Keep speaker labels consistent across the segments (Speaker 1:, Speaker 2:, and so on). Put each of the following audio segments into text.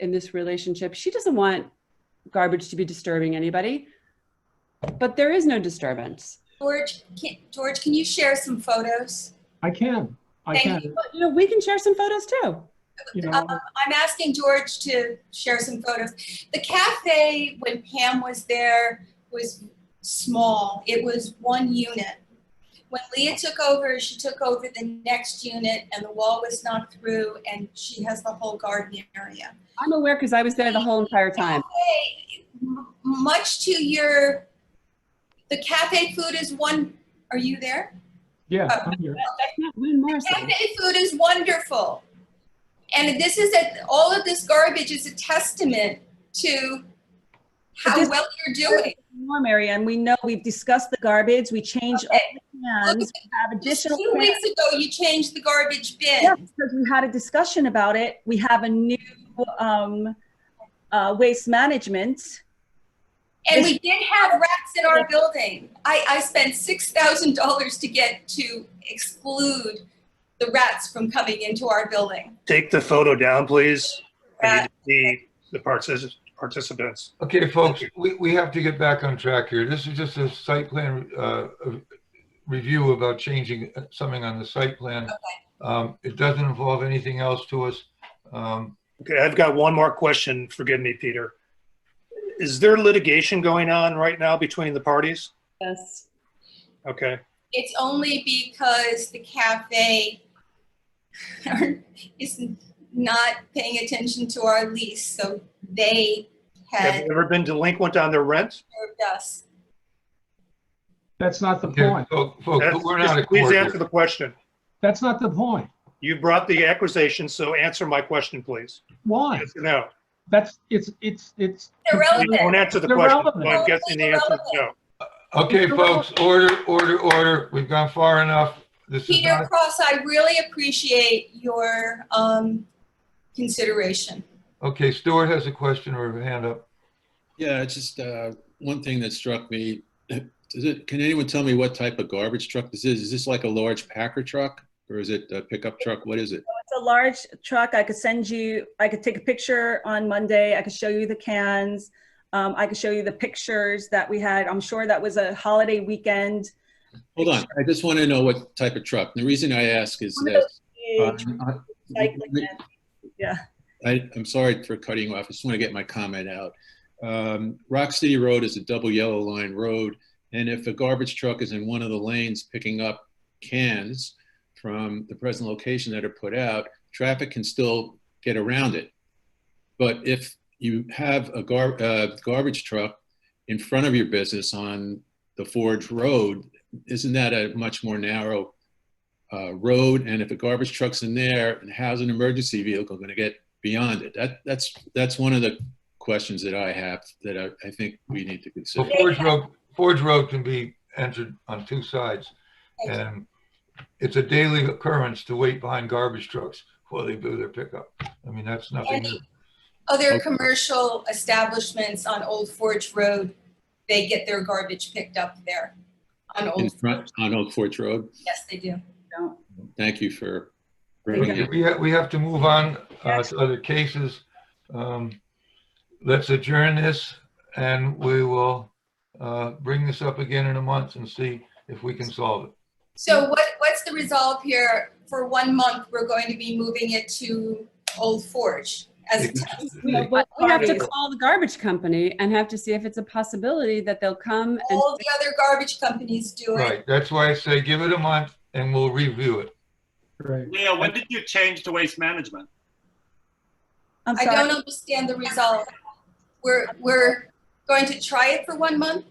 Speaker 1: in this relationship. She doesn't want garbage to be disturbing anybody, but there is no disturbance.
Speaker 2: George, can, George, can you share some photos?
Speaker 3: I can, I
Speaker 2: Thank
Speaker 3: can,
Speaker 2: you.
Speaker 1: But, you know, we can share some photos too.
Speaker 3: you know,
Speaker 2: Um, I'm asking George to share some photos. The cafe, when Pam was there, was small. It was one unit. When Leah took over, she took over the next unit and the wall was knocked through and she has the whole garden area.
Speaker 1: I'm aware because I was there the whole entire time.
Speaker 2: Cafe, m- much to your, the cafe food is one, are you there?
Speaker 3: yeah,
Speaker 2: Oh.
Speaker 3: I'm here.
Speaker 1: That's not Lynn Morrison.
Speaker 2: Cafe food is wonderful. And this is a, all of this garbage is a testament to
Speaker 4: But
Speaker 2: how
Speaker 4: this-
Speaker 2: well you're doing.
Speaker 4: Warm area, and we know we've discussed the garbage, we changed all
Speaker 2: Okay.
Speaker 4: the plans, we have
Speaker 2: Just
Speaker 4: additional.
Speaker 2: two weeks ago, you changed the garbage
Speaker 4: Yeah,
Speaker 2: bin.
Speaker 4: because we had a discussion about it. We have a new um, uh, waste management.
Speaker 2: And we did have rats in our building. I, I spent six thousand dollars to get to exclude the rats from coming into our building.
Speaker 5: Take the photo down, please. I
Speaker 2: Rat-
Speaker 5: need to see the partici- participants.
Speaker 6: Okay, folks, we, we have to get back on track here. This is just a site plan, uh, review about changing uh, something on the site plan. Um, it doesn't involve anything else to us. Um,
Speaker 5: Okay, I've got one more question. Forgive me, Peter. Is there litigation going on right now between the parties?
Speaker 1: Yes.
Speaker 5: Okay,
Speaker 2: It's only because the cafe is not paying attention to our lease, so they
Speaker 5: have
Speaker 2: had
Speaker 5: you ever been delinquent on their rent?
Speaker 2: served us.
Speaker 3: That's not the
Speaker 6: okay,
Speaker 3: point.
Speaker 6: fol- folks,
Speaker 5: That's-
Speaker 6: Oh, we're not a
Speaker 5: just Please
Speaker 6: court
Speaker 5: answer
Speaker 6: here.
Speaker 5: the question.
Speaker 3: That's not the point.
Speaker 5: You brought the accusation, so answer my question, please.
Speaker 3: Why?
Speaker 5: Yes or No,
Speaker 3: That's, it's, it's, it's.
Speaker 5: you won't
Speaker 2: Irrelevant.
Speaker 5: answer the
Speaker 3: They're
Speaker 5: question.
Speaker 3: relevant.
Speaker 5: so I'm guessing the answer is no.
Speaker 6: Okay, folks, order, order, order. We've gone far enough. This is
Speaker 2: Peter
Speaker 6: not,
Speaker 2: Cross, I really appreciate your um, consideration.
Speaker 6: okay, Stuart has a question or a hand up.
Speaker 7: Yeah, it's just uh, one thing that struck me. Does it, can anyone tell me what type of garbage truck this is? Is this like a large packer truck or is it a pickup truck? What is it?
Speaker 4: It's a large truck. I could send you, I could take a picture on Monday. I could show you the cans. Um, I could show you the pictures that we had. I'm sure that was a holiday weekend.
Speaker 7: Hold on, I just want to know what type of truck. The reason I ask is
Speaker 4: One of
Speaker 7: this.
Speaker 4: Huge
Speaker 7: uh,
Speaker 4: recycling bin.
Speaker 7: I, I'm sorry for cutting you off. I just want to get my comment out. Um, Rock City Road is a double yellow line road, and if a garbage truck is in one of the lanes picking up cans from the present location that are put out, traffic can still get around it. But if you have a gar- uh, garbage truck in front of your business on the Forge Road, isn't that a much more narrow uh, road? And if a garbage truck's in there, and how's an emergency vehicle going to get beyond it. That, that's, that's one of the questions that I have that I, I think we need to
Speaker 6: So
Speaker 7: consider.
Speaker 6: Forge Road, Forge Road can be entered on two sides. And it's a daily occurrence to wait behind garbage trucks while they do their pickup. I mean, that's nothing new.
Speaker 2: Other
Speaker 7: Okay.
Speaker 2: commercial establishments on Old Forge Road, they get their garbage picked up there. On
Speaker 7: In
Speaker 2: Old,
Speaker 7: front, on Old Forge Road,
Speaker 2: yes, they do.
Speaker 4: Don't-
Speaker 7: thank you for bringing
Speaker 6: Okay,
Speaker 7: it.
Speaker 6: We have, we have to move on uh, to other cases. Um, Let's adjourn this and we will uh, bring this up again in a month and see if we can solve it.
Speaker 2: So what, what's the resolve here? For one month, we're going to be moving it to Old Forge as a test.
Speaker 1: We
Speaker 6: Yeah.
Speaker 1: but we have to
Speaker 4: Parties.
Speaker 1: call the garbage company and have to see if it's a possibility that they'll come and
Speaker 2: All the other garbage companies do it.
Speaker 6: Right, that's why I say give it a month and we'll review it.
Speaker 3: Right.
Speaker 8: Leah, when did you change to waste management?
Speaker 4: I'm
Speaker 2: I
Speaker 4: sorry.
Speaker 2: don't understand the resolve. We're, we're going to try it for one month?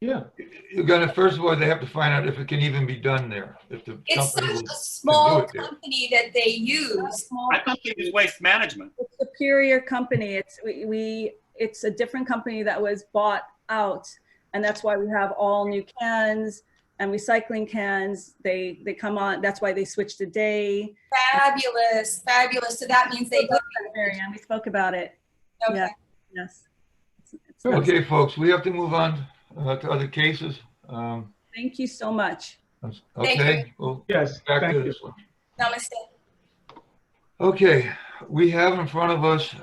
Speaker 3: Yeah,
Speaker 6: You're gonna, first of all, they have to find out if it can even be done there, if the
Speaker 2: It's
Speaker 6: company
Speaker 2: such
Speaker 6: will.
Speaker 2: a small
Speaker 6: do it there.
Speaker 2: company that they use.
Speaker 4: Small
Speaker 8: I thought it was waste management.
Speaker 4: It's Superior company. It's, we- we, it's a different company that was bought out. And that's why we have all new cans and recycling cans. They, they come on, that's why they switched the day.
Speaker 2: Fabulous, fabulous. So that means they,
Speaker 4: Mary Ann, we spoke about it.
Speaker 2: okay.
Speaker 4: Yes. It's- it's-
Speaker 6: Okay, folks, we have to move on uh, to other cases. Um,
Speaker 4: Thank you so much.
Speaker 2: Thank you.
Speaker 6: Okay, well,
Speaker 3: yes,
Speaker 6: back
Speaker 3: thank
Speaker 6: to
Speaker 3: you.
Speaker 6: this one.
Speaker 2: Namaste.
Speaker 6: Okay, we have in front of us